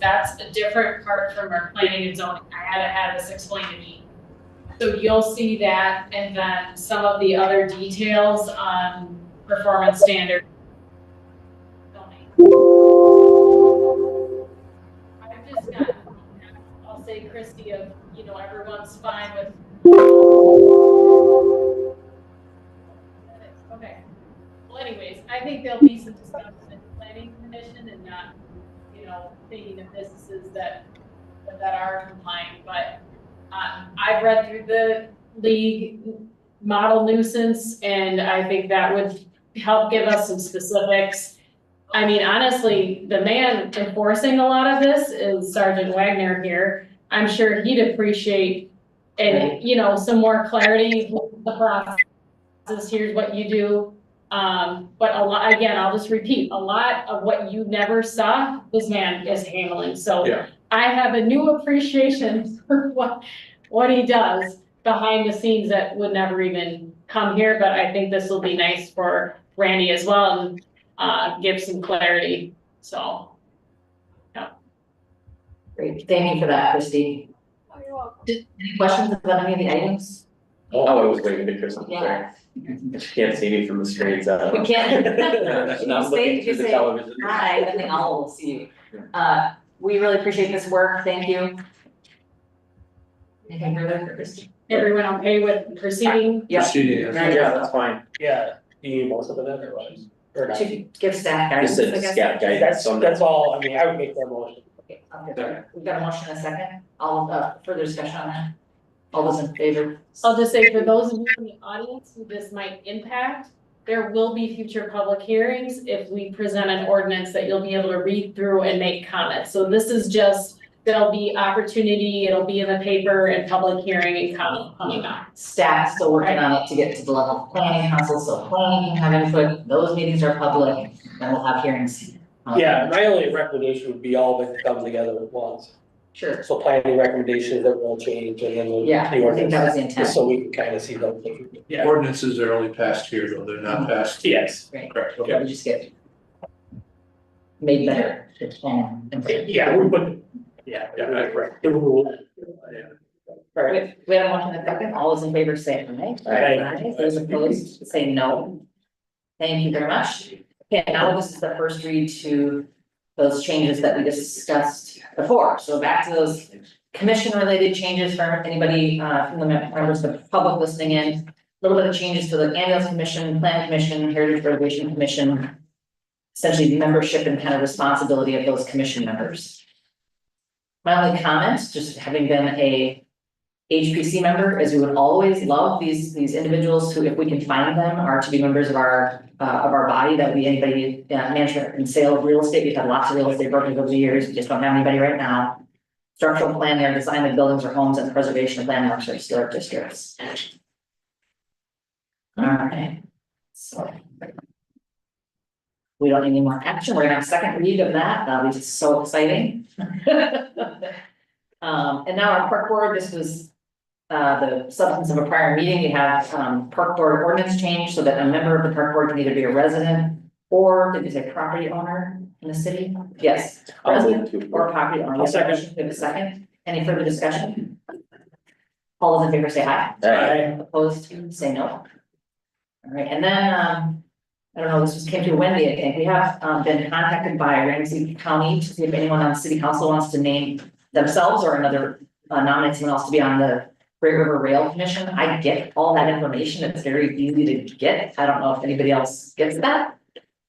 that's a different part from our planning and zoning, I had to have this explained to me. So you'll see that, and then some of the other details on performance standard. I'm just not, I'll say Christie of, you know, everyone's fine with. Okay, well anyways, I think there'll be some discussion in the planning commission and not, you know, thinking of businesses that, that are compliant, but, um, I've read through the league model nuisance, and I think that would help give us some specifics. I mean, honestly, the man enforcing a lot of this is Sergeant Wagner here, I'm sure he'd appreciate and, you know, some more clarity with the process, here's what you do, um, but a lot, again, I'll just repeat, a lot of what you never saw, this man is handling, so. Yeah. I have a new appreciation for what, what he does behind the scenes that would never even come here, but I think this will be nice for Randy as well and, uh, give some clarity, so. Great, thank you for that, Christie. Oh, you're welcome. Any questions about any of the items? Oh, I was waiting to hear something there. Yeah. You can't see me from the screens, uh. We can't. Not looking through Just the say- television. Hi, I think all will see you. Uh, we really appreciate this work, thank you. Anything further for Christie? Everyone okay with proceeding? Yeah. Yeah, that's fine. Yeah, you need most of it otherwise, or not. To give staff Just guidance, I a guess. scout guidance That's, on that's that. all, I mean, I would make that motion. Okay, I'll get- We've got a motion and a second, all, uh, further discussion on that? All those in favor? I'll just say for those of you in the audience who this might impact, there will be future public hearings if we present an ordinance that you'll be able to read through and make comments. So this is just, there'll be opportunity, it'll be in the paper and public hearing and comment coming up. Staff still working on it to get to the level of planning council, so planning can have input, those meetings are public, then we'll have hearings. Um, Yeah, my only recommendation would be all of it to come together at once, Sure, so planning recommendations that will change and then the yeah, the I think that was ordinance, the intent. so we can kind of see them. Yeah, Ordinances are only passed here, though, they're not passed. yes, Correct, Or we just get made better to plan and plan. yeah, we would, yeah, Yeah, I agree. the rule. Right, We we have a motion and a second, all those in favor say aye. Aye. Those opposed say no. Thank you very much. Okay, now this is the first read to those changes that we discussed before, so back to those commission related changes for anybody uh from the mem- members of the public listening in. A Little bit of changes to the ambulance commission, plan commission, heritage reservation commission. Essentially the membership and kind of responsibility of those commission members. My only comment, just having been a HPC member is we would always love these, these individuals who, if we can find them, are to be members of our, uh, of our body, that we, anybody, uh, management and sale of real estate, we've had lots of real estate brokers over the years, we just don't have anybody right now. Structural plan, their design of buildings or homes and the preservation of landmarks or historic districts. Alright, so. We don't need any more action, we're gonna have a second read of that, that'll be just so exciting. Um, and now our park board, this was uh, the substance of a prior meeting, we have, um, park board ordinance change so that a member of the park board can either be a resident or if it's a property owner in the city, yes, I'll move to. or property owner. I'll second. We have a second. Any further discussion? All those in favor say aye. Alright, Opposed, say no. All right, and then, um, I don't know, this just came to Wendy, I think, we have, um, been contacted by Ramsey County to see if anyone on city council wants to name themselves or another, uh, nominate someone else to be on the Great River Rail Commission. I get all that information, it's very easy to get, I don't know if anybody else gets that.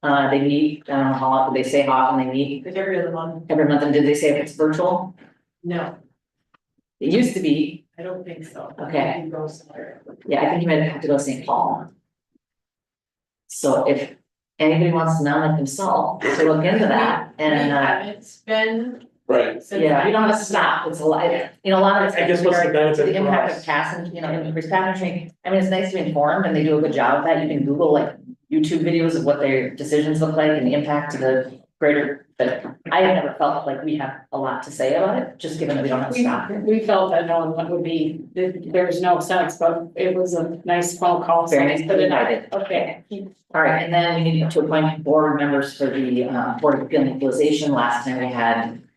Uh, they meet, I don't know how often, they say how often they meet, every other one, every month, and did they say if it's virtual? no, It used to be, I don't think so. Okay. You go somewhere. Yeah, I think you might have to go to St. Paul. So if anybody wants to nominate themselves, to look into that and uh, It's been Right. since. yeah, we don't have I- to stop, it's a lot, it- you know, a lot of it's. I guess what's the benefit To the for impact of us? passing, you know, increased pageantry, I mean, it's nice to be informed and they do a good job of that, you can Google like YouTube videos of what their decisions look like and the impact to the greater. But I have never felt like we have a lot to say about it, just given that we don't have to We, stop. we felt that no one would be, that there's no sense, but it was a nice phone call, so Very I nice, put it out. invited. Okay, All right, and then we need to appoint board members for the uh Board of Appeal and Equalization. Last time we had